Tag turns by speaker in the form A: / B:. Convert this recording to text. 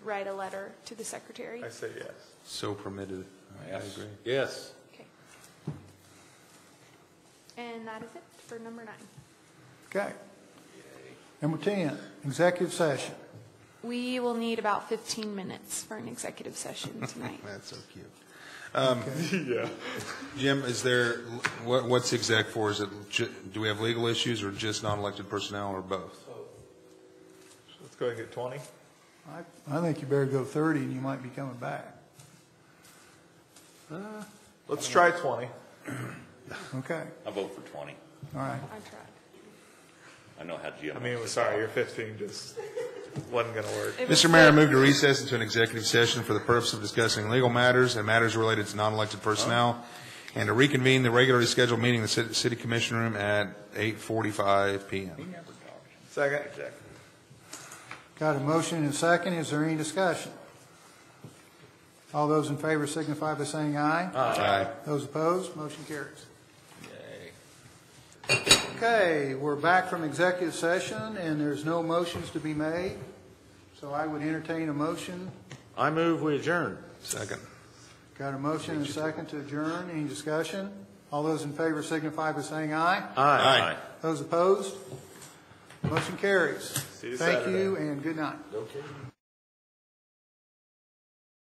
A: write a letter to the secretary?
B: I say yes.
C: So permitted. I
B: Yes.
C: agree.
B: Yes.
A: Okay. And that is it for number nine.
D: Okay. Number 10, executive session.
A: We will need about 15 minutes for an executive session tonight.
C: That's so cute. Um, Jim, is there, what, what's exec for? Is it, ju- do we have legal issues or just non-elected personnel or both?
B: Let's go ahead and get 20.
D: I I think you better go 30, and you might be coming back.
B: Let's try 20.
D: Okay,
E: I vote for 20.
D: all right.
A: I tried.
E: I know how Jim.
B: I mean, we're sorry, your 15 just wasn't going to work.
A: It was
C: Mr. Mayor, I
A: good.
C: move to recess into an executive session for the purpose of discussing legal matters and matters related to non-elected personnel, and to reconvene the regularly scheduled meeting in the ci- city commission room at 8:45 PM.
B: Second.
D: Got a motion and a second. Is there any discussion? All those in favor signify by saying aye.
C: Aye.
D: Those opposed, motion carries. Okay, we're back from executive session, and there's no motions to be made, so I would entertain a motion.
F: I move we adjourn.
C: Second.
D: Got a motion and a second to adjourn. Any discussion? All those in favor signify by saying aye.
C: Aye.
D: Those opposed? Motion carries.
B: you
D: Thank
B: Saturday.
D: you and good night.